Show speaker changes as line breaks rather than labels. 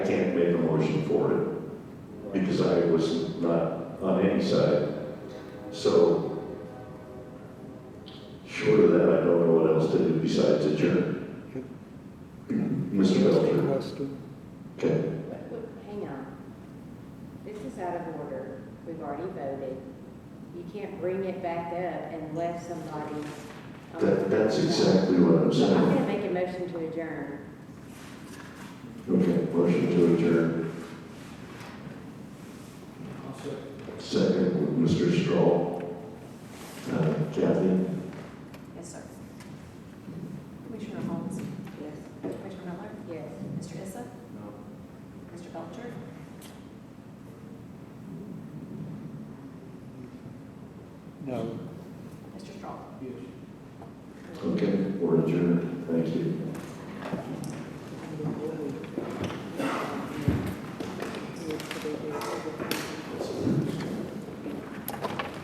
motion for it because I was not on any side. So short of that, I don't know what else to do besides adjourn. Mr. Belcher, okay,
Wait, wait, Hang on. This is out of order. We've already voted. You can't bring it back up unless somebody.
that, that's exactly what I'm
I'm
saying.
gonna make a motion to adjourn.
Okay, motion to adjourn. Second, Mr. Straw. Uh, Kathy?
Yes, sir. Commissioner Holmes?
Yes.
Commissioner Miller?
Yes.
Mr. Issa? Mr. Belcher?
No.
Mr. Strong?
Okay, we're adjourned, thank you.
Yes, to be-